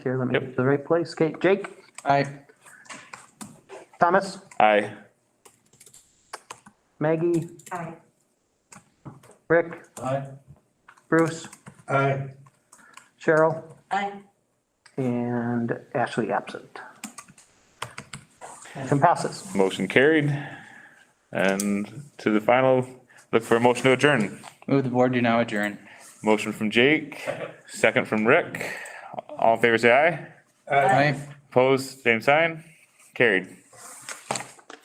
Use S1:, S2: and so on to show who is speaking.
S1: Here, let me get to the right place. Okay, Jake,
S2: Aye.
S1: Thomas,
S3: Aye.
S1: Maggie,
S4: Aye.
S1: Rick,
S2: Aye.
S1: Bruce,
S2: Aye.
S1: Cheryl,
S4: Aye.
S1: and Ashley absent. Motion passes.
S3: Motion carried. And to the final, look for a motion to adjourn.
S2: Move the board to now adjourn.
S3: Motion from Jake, second from Rick. All in favor, say aye.
S2: Aye.
S3: Opposed, same sign. Carried.